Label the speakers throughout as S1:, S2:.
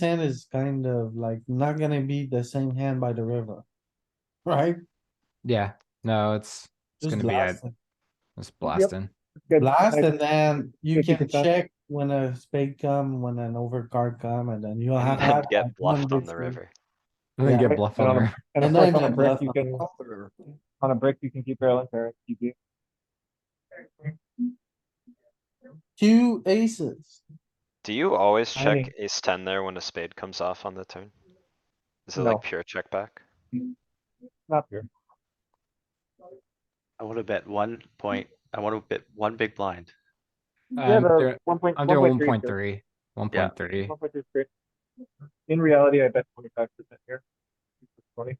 S1: hand is kind of like not gonna be the same hand by the river. Right?
S2: Yeah, no, it's
S1: Just
S2: gonna be a-
S1: blast it.
S2: it's blasting.
S3: Good.
S1: Blast
S3: I-
S1: and then you
S3: Fifty
S1: can
S3: percent.
S1: check when a spade come, when an overcard come, and then you'll have.
S4: And
S1: had
S4: then
S1: like
S4: get bluffed on
S1: 150.
S4: the river.
S2: And then
S1: Yeah.
S2: get bluff
S3: Um,
S2: over.
S3: And of
S1: And then
S3: course, on a
S1: get
S3: brick,
S1: bluffed
S3: you
S1: on
S3: can,
S1: top of the river.
S3: on a brick, you can keep barreling pair, you do.
S1: Two aces.
S4: Do you always
S3: I
S4: check
S3: think-
S4: ace ten there when a spade comes off on the turn? Is it
S3: No.
S4: like pure check back?
S3: not here.
S5: I wanna bet one point, I wanna bet one big blind.
S3: Yeah,
S2: I'm
S3: the
S2: there-
S3: one point,
S2: Um,
S3: one
S2: Under one
S3: point
S2: point
S3: three.
S2: three, one point three.
S3: One point three is great. In reality, I bet twenty-five percent here. Twenty,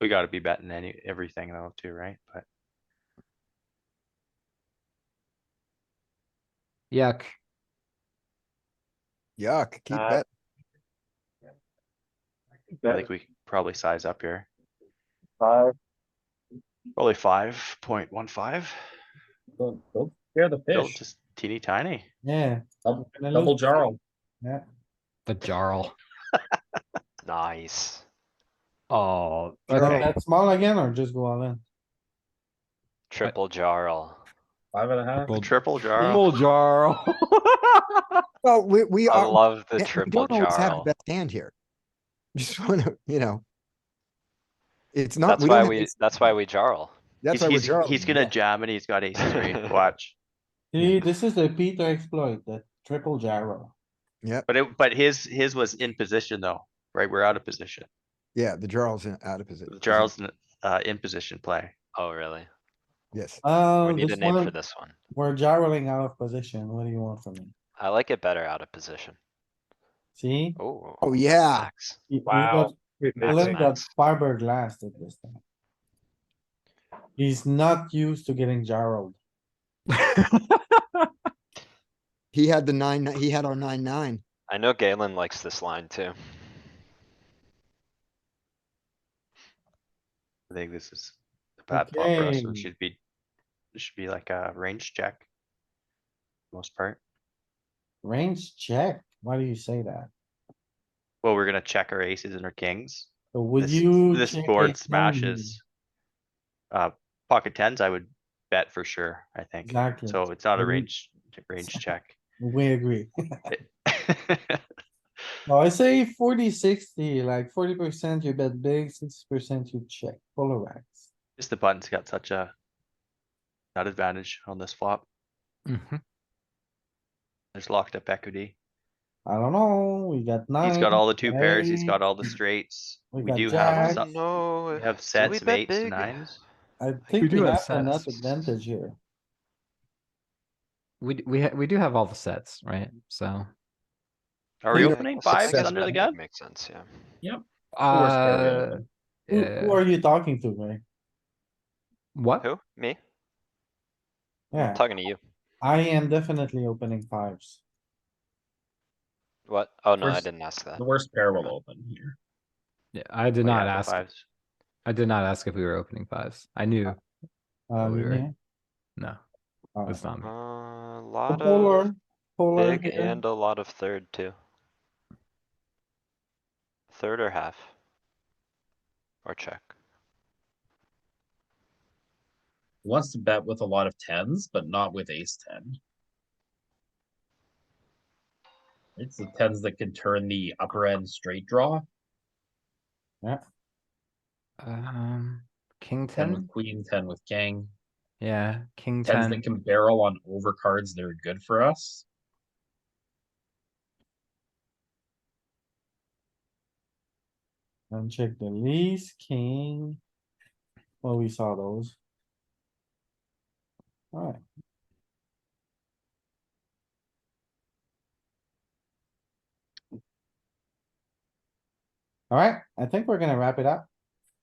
S5: We gotta be betting any, everything though too, right? But
S2: Yuck.
S6: Yuck, keep
S3: Uh,
S6: that.
S5: I
S3: bet
S5: think we can probably size up here.
S3: five.
S5: Probably five point one five.
S7: Here the
S5: Still
S7: fish.
S5: just teeny tiny.
S1: Yeah,
S7: Dou-
S1: Hello.
S7: Double jarl.
S2: The jarl.
S4: Nice.
S2: Oh,
S1: so
S2: okay.
S1: that's small again or just go all in?
S4: Triple jarl.
S7: Five and a half.
S2: Triple-
S5: Triple jarl.
S2: Triple jarl.
S6: Well, we, we
S4: I
S6: are, eh,
S4: love the
S6: we
S4: triple
S6: don't always have
S4: jarl.
S6: the best hand here. Just wanna, you know. It's
S4: That's
S6: not. don't
S4: why
S6: have
S4: we,
S6: ace-
S4: that's why we jarl.
S6: That's
S5: He's,
S6: why we're
S5: he's,
S6: drawing.
S5: he's gonna jam and he's got ace three, watch.
S1: See, this is the Peter exploit, the triple gyro.
S5: But it, but his, his was in position though, right? We're out of position.
S6: Yeah, the jarl's in- out of position.
S5: Jarl's, n- uh, in position play.
S4: Oh, really?
S6: Yes,
S1: Oh,
S4: We need
S1: this
S4: a name for
S1: one,
S4: this one.
S1: we're gyroing out of position. What do you want from me?
S4: I like it better out of position.
S1: See?
S4: Oh.
S6: Oh, yeah.
S4: max.
S1: You- you
S7: Wow.
S1: got
S3: Wait,
S4: Max,
S1: Glenn got
S4: max.
S1: fiberglass at this time. He's not used to getting jarred.
S6: he had the nine, he had our nine, nine.
S4: I know Galen likes this line too.
S5: I think this is a bad pot for us and
S1: Okay.
S5: should be, it should be like a range check. Most part.
S1: Range check. Why do you say that?
S5: Well, we're gonna check our aces and our kings.
S1: So would
S5: This-
S1: you?
S5: This
S1: check
S5: board
S1: it down?
S5: smashes. Uh, pocket tens, I would bet for sure, I think.
S1: Exactly.
S5: So it's not a
S1: Mhm.
S5: range, range check.
S1: We agree. No, I say 40 60. like forty percent you bet big, sixty percent you check, polarize.
S5: Just the button's got such a. Not advantage on this flop.
S2: Mhm.
S5: There's locked up equity.
S1: I don't know, we got nine.
S5: He's got all the two pairs. He's
S1: eight.
S5: got all the straights.
S1: We
S5: We
S1: got
S5: do
S1: jacks.
S5: have
S4: Oh,
S5: some,
S4: no.
S5: we
S4: Do
S5: have sets of
S4: bet
S5: eights and
S4: big?
S5: nines.
S1: I think
S2: do
S1: we
S2: have
S1: have enough
S2: sets.
S1: advantage here.
S2: We, d- we, ha- we do have all the sets, right? So,
S5: Are we
S6: Peter,
S5: opening
S4: I guess
S5: fives
S6: success
S5: under the
S4: that
S5: gun?
S4: Makes sense, yeah.
S7: course they're
S2: uh,
S1: Who, who
S2: uh,
S1: are you talking to, Ray?
S2: what?
S4: Who? Me?
S1: Yeah,
S4: Talking to you.
S1: I am definitely opening fives.
S4: What? Oh, no, I
S7: First-
S4: didn't ask that.
S7: The worst pair will open here.
S2: Yeah, I did
S5: Oh, yeah,
S2: not
S5: the
S2: ask,
S5: fives.
S2: I did not ask if we were opening fives. I knew,
S1: Uh,
S2: Oh, you're right.
S1: yeah.
S2: no,
S1: All right.
S2: that's not me.
S4: Uh,
S1: So
S4: lot of
S1: Polar, polar
S4: big
S1: here,
S4: and a lot of third too. Third or half? Or check?
S7: He Wants to bet with a lot of tens, but not with ace ten. It's the tens that can turn the upper end straight draw
S5: Uh-huh.
S2: Um, king
S7: and with
S2: ten?
S7: queen ten with king.
S2: Yeah, king
S7: Tens
S2: ten.
S7: that can barrel on overcards that are good for us.
S1: and check the least king. Well, we saw those. Alright, alright, I think we're gonna wrap it up.